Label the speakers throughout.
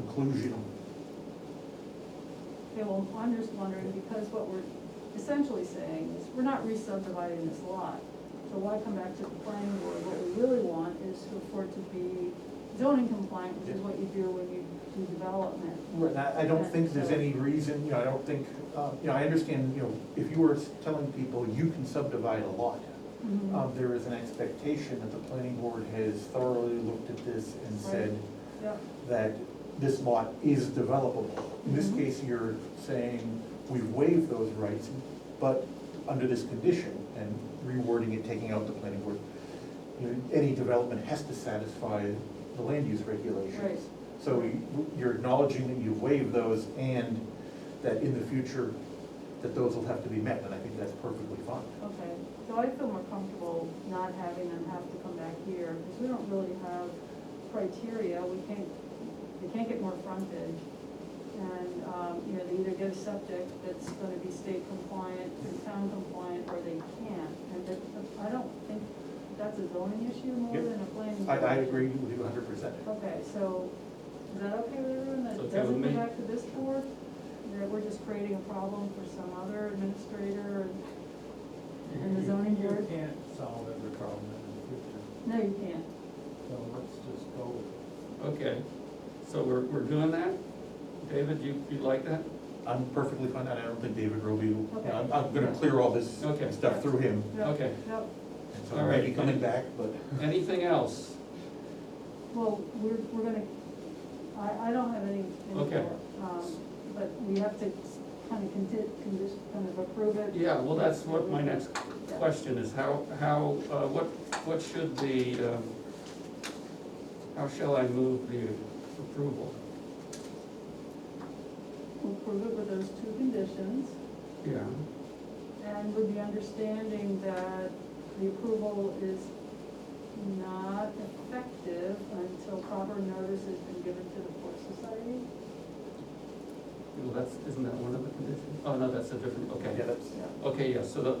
Speaker 1: inclusion.
Speaker 2: Okay, well, I'm just wondering, because what we're essentially saying is, we're not re-subdividing this lot. So why come back to the planning board? What we really want is to- for it to be zoning compliant, which is what you do when you do development.
Speaker 1: And I, I don't think there's any reason, you know, I don't think, uh, you know, I understand, you know, if you were telling people you can subdivide a lot,
Speaker 2: Mm-hmm.
Speaker 1: um, there is an expectation that the planning board has thoroughly looked at this and said
Speaker 2: Yep,
Speaker 1: that this lot is developable. In this
Speaker 2: Mhm.
Speaker 1: case, you're saying we've waived those rights, but under this condition and rewording it, taking out the planning board, you know, any development has to satisfy the land use regulations.
Speaker 2: Right.
Speaker 1: So you- you're acknowledging that you've waived those and that in the future, that those will have to be met, and I think that's perfectly fine.
Speaker 2: okay. So I feel more comfortable not having them have to come back here, because we don't really have criteria. We can't, they can't get more frontage. And, um, you know, they either get a septic that's gonna be state compliant and town compliant, or they can't. And that, I don't think that's a zoning issue more
Speaker 1: Yep.
Speaker 2: than a planning.
Speaker 1: I, I
Speaker 2: board.
Speaker 1: agree with you hundred percent.
Speaker 2: Okay, so is that okay with everyone?
Speaker 3: It's
Speaker 2: That
Speaker 3: okay
Speaker 2: doesn't
Speaker 3: with
Speaker 2: come
Speaker 3: me.
Speaker 2: back to this board? That we're just creating a problem for some other administrator and And the zoning board?
Speaker 4: You can't solve every problem in the future,
Speaker 2: No, you can't.
Speaker 4: so let's just go with it.
Speaker 3: Okay, so we're, we're doing that? David, you, you like that?
Speaker 1: I'm perfectly fine, and I don't think David Roby, will-
Speaker 2: Okay.
Speaker 1: I'm, I'm gonna clear all this
Speaker 3: Okay.
Speaker 1: stuff through him,
Speaker 2: No,
Speaker 3: Okay.
Speaker 2: no.
Speaker 1: and so
Speaker 3: All
Speaker 1: maybe
Speaker 3: right.
Speaker 1: coming back, but.
Speaker 3: Anything else?
Speaker 2: Well, we're, we're gonna, I, I don't have any, any
Speaker 3: Okay.
Speaker 2: more. Um, But we have to kind of conti, condition, kind of approve it.
Speaker 3: Yeah, well, that's what my next question is, how, how, uh, what, what should the, um, how shall I move the approval?
Speaker 2: We'll approve it with those two conditions,
Speaker 3: Yeah,
Speaker 2: and with the understanding that the approval is not effective until proper notice has been given to the Forest Society.
Speaker 3: well, that's, isn't that one of the conditions? Oh, no, that's a different,
Speaker 1: Yeah,
Speaker 3: okay.
Speaker 1: that's,
Speaker 3: Okay, yeah, so the,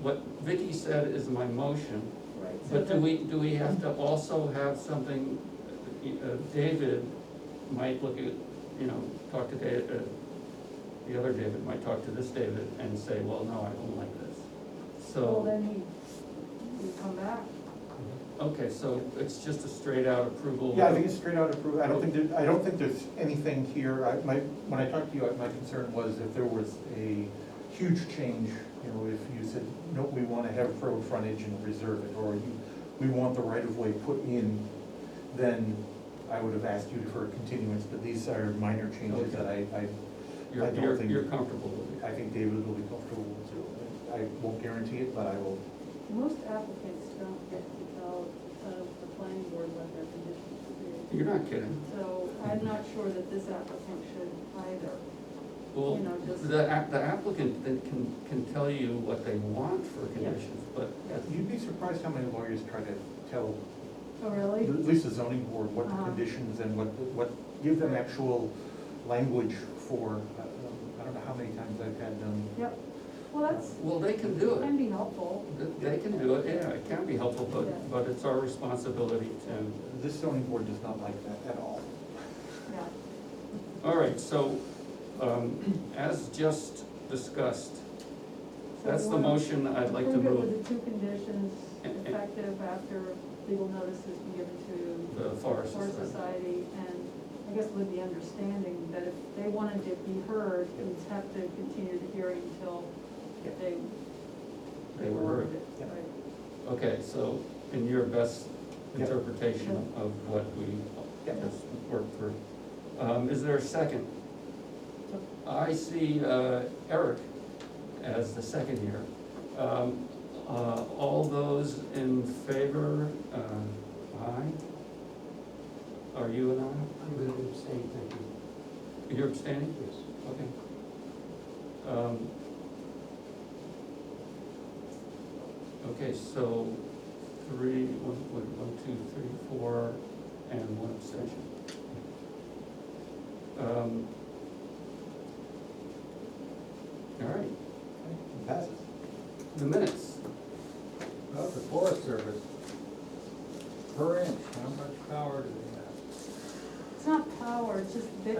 Speaker 3: what Vicky said is my motion,
Speaker 2: Right. so
Speaker 3: But do
Speaker 2: that-
Speaker 3: we, do we have to also have something, uh, David might look at, you know, talk to David, uh, the other David might talk to this David and say, well, no, I don't like this.
Speaker 2: Well,
Speaker 3: So,
Speaker 2: then he, we come back.
Speaker 3: okay, so it's just a straight out approval.
Speaker 1: yeah, I think it's straight out approved, I don't think, there- I don't think there's anything here, I, my, when I talked to you, I- my concern was if there was a huge change, you know, if you said, no, we wanna have road frontage and reserve it, or you- we want the right of way put in, then I would have asked you for a continuance, but these are minor changes that I, I
Speaker 3: You're,
Speaker 1: I don't
Speaker 3: you're,
Speaker 1: think-
Speaker 3: you're comfortable with it.
Speaker 1: I think David will be comfortable with it. I won't guarantee it, but I will.
Speaker 2: Most applicants don't get to tell, tell the planning board what their conditions should be.
Speaker 3: You're not kidding.
Speaker 2: So I'm not sure that this applicant should either.
Speaker 3: Well,
Speaker 2: You know, just-
Speaker 3: the, app- the applicant then can, can tell you what they want for
Speaker 2: Yeah.
Speaker 3: conditions, but
Speaker 1: You'd be surprised how many lawyers try to tell,
Speaker 2: Oh,
Speaker 1: at
Speaker 2: really?
Speaker 1: least the zoning board, what
Speaker 2: Uh-huh.
Speaker 1: the conditions and what, what, give them actual language for, uh, I don't know how many times I've had them.
Speaker 2: Yep. Well, that's,
Speaker 3: well, they can do it.
Speaker 2: can be helpful.
Speaker 3: Th- They can do it, yeah, it can be helpful,
Speaker 2: Yeah.
Speaker 3: but, but it's our responsibility to.
Speaker 1: This zoning board does not like that at all.
Speaker 2: Yeah.
Speaker 3: All right, so, um, as just discussed,
Speaker 2: So
Speaker 3: that's
Speaker 2: we
Speaker 3: the
Speaker 2: wanna
Speaker 3: motion I'd like to
Speaker 2: approve it
Speaker 3: move
Speaker 2: With the two conditions
Speaker 3: And- and-
Speaker 2: effective after legal notice has been given to
Speaker 3: the forest.
Speaker 2: Forest
Speaker 3: Society.
Speaker 2: Society. And I guess with the understanding that if they wanted to be heard, we'd have to continue the hearing until
Speaker 1: Yeah.
Speaker 2: they.
Speaker 3: They were heard.
Speaker 2: it,
Speaker 1: Yeah.
Speaker 2: Right.
Speaker 3: Okay, so in your best
Speaker 1: Yeah.
Speaker 3: interpretation of what we
Speaker 1: Yeah.
Speaker 3: just worked through, um, is there a second? I see, uh, Eric as the second here. Um, uh, all those in favor, uh, aye? Are you an aye?
Speaker 5: I'm going to abstain, thank you.
Speaker 3: You're abstaining?
Speaker 5: Yes.
Speaker 3: Okay. Um, Okay, so three, one, wait, one, two, three, four, and one abstention. Um, All right,
Speaker 1: Passes.
Speaker 3: the minutes.